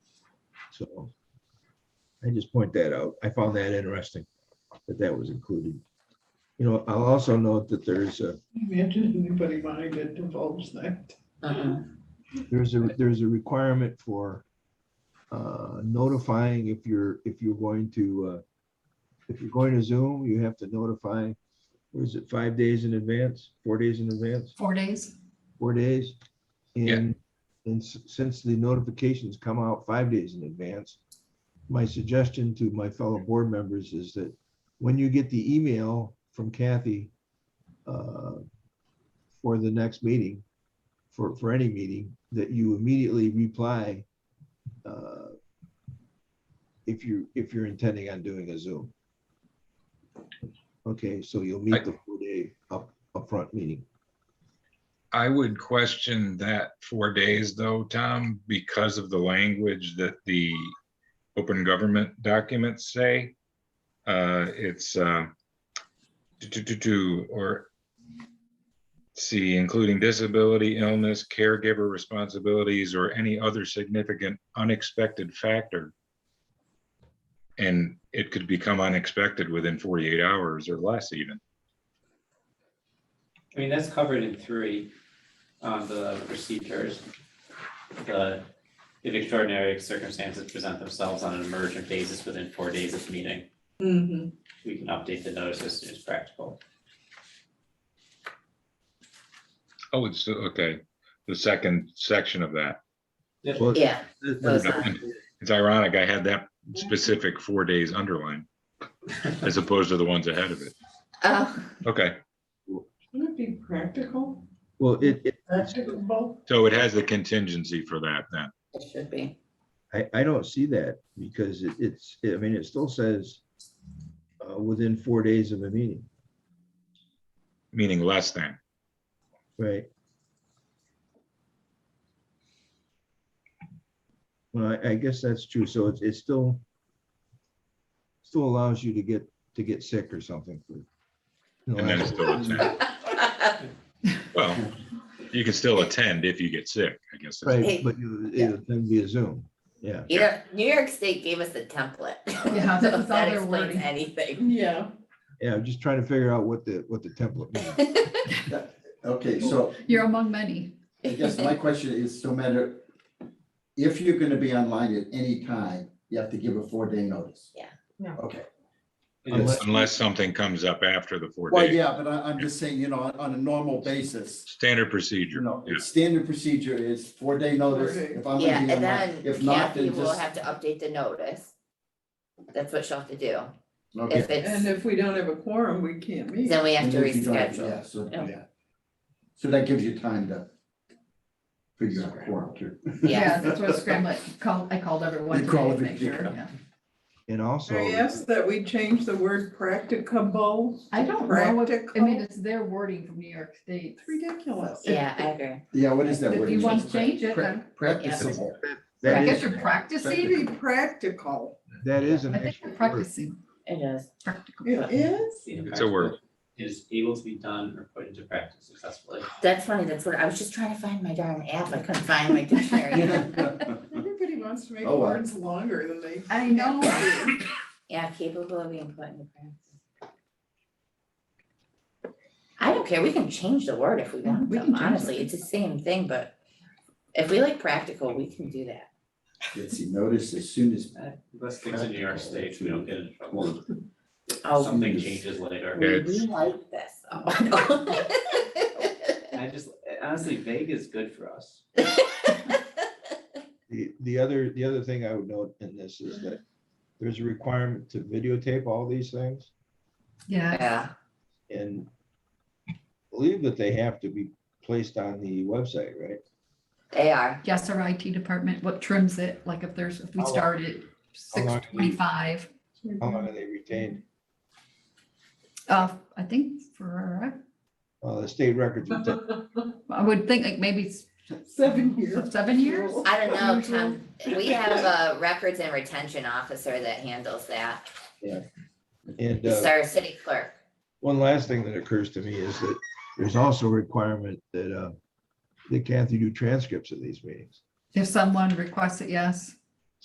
so. I just point that out. I found that interesting, that that was included. You know, I'll also note that there's a, Imagine anybody mind that involves that. Uh-uh. there's a, there's a requirement for uh, notifying if you're, if you're going to, uh, if you're going to Zoom, you have to notify, what is it, five days in advance, four days in advance, Four days? four days? Yeah. And, and s- since the notifications come out five days in advance, my suggestion to my fellow board members is that when you get the email from Kathy uh, for the next meeting, for, for any meeting, that you immediately reply uh, if you, if you're intending on doing a Zoom. Okay, so you'll meet the four-day up, upfront meeting. I would question that four days though, Tom, because of the language that the open government documents say. Uh, it's, uh, to, to, to, to, or see, including disability, illness, caregiver responsibilities, or any other significant unexpected factor. And it could become unexpected within forty-eight hours or less even. I mean, that's covered in three, um, the procedures. The, if extraordinary circumstances present themselves on an emergent basis within four days of meeting, Mm-hmm. we can update the notice as soon as practical. Oh, it's, okay, the second section of that. Well, Yeah, Those are- It's ironic, I had that specific four days underlined as opposed to the ones ahead of it. oh, Okay, Would it be practical, Well, it, it, practicable? so it has the contingency for that then. it should be. I, I don't see that because it- it's, I mean, it still says uh, within four days of a meeting, meaning less than. right? Well, I, I guess that's true. So it's, it's still still allows you to get, to get sick or something. for- you know, And then it's still attend. Well, you can still attend if you get sick, I guess. that's- Right, but you, it'll then be a Zoom. Yeah, You know, New York State gave us a template. Yeah, that So was if That all their explains wording. anything. Yeah. yeah, I'm just trying to figure out what the, what the template means. Okay, so You're among many. I guess my question is, no matter, if you're gonna be online at any time, you have to give a four-day notice? Yeah. Yeah. Okay, Unless- Unless something comes up after the four well, days. yeah, but I, I'm just saying, you know, on- on a normal basis, Standard you procedure. know, yeah. standard standard procedure is four-day notice. Okay. If I'm Yeah, gonna be and online, then if not, Kathy then will just, have to update the notice. That's what she'll have to do. okay. If it's, And if we don't have a quorum, we can't meet. then we have to And if you don't have- Yeah, reschedule. Oh. so, Yeah. yeah. So that gives you time to figure out quorum too. Yeah. That's what scrambled, call, I called everyone You today called to make everybody, sure. yeah. yeah. And also. I ask that we change the word practicable. I don't know, what- I Practical. mean, it's their wording from New York State. It's ridiculous. Yeah, I agree. Yeah, what is that If word? you It's want to just change it, pra- Practicable. I That guess is, you're practicing. Be practical. that is an I think extra you're word. practicing, It is. practical. It is? It's a word. Is able to be done or put into practice successfully. That's funny. That's what, I was just trying to find my darn app. I couldn't find my dictionary. Everybody wants to make Oh, wow. words longer than they. I know. Yeah, capable of being put into practice. I don't care, we can change the word if we Yeah, want we to, can change it. honestly, it's the same thing, but if we like practical, we can do that. Let's see, notice as soon as Unless things in New York State, we don't get in trouble. Well, Oh, Something changes later. we it's- we like this, Oh, though. I just, honestly, vague is good for us. The, the other, the other thing I would note in this is that there's a requirement to videotape all these things Yeah, Yeah, and believe that they have to be placed on the website, right? they are, yes, our IT department, what trims it, like if there's, if we How long- start at how six long do you- twenty-five, How long are they retained? uh, I think for, Uh, the state records, would take- I would think like maybe s- Seven years. seven years. I don't know, Tom, Mm-hmm. we have a records and retention officer that handles that, and, it's uh, our city clerk. one last thing that occurs to me is that there's also a requirement that, uh, that Kathy do transcripts of these meetings. If someone requests it, yes.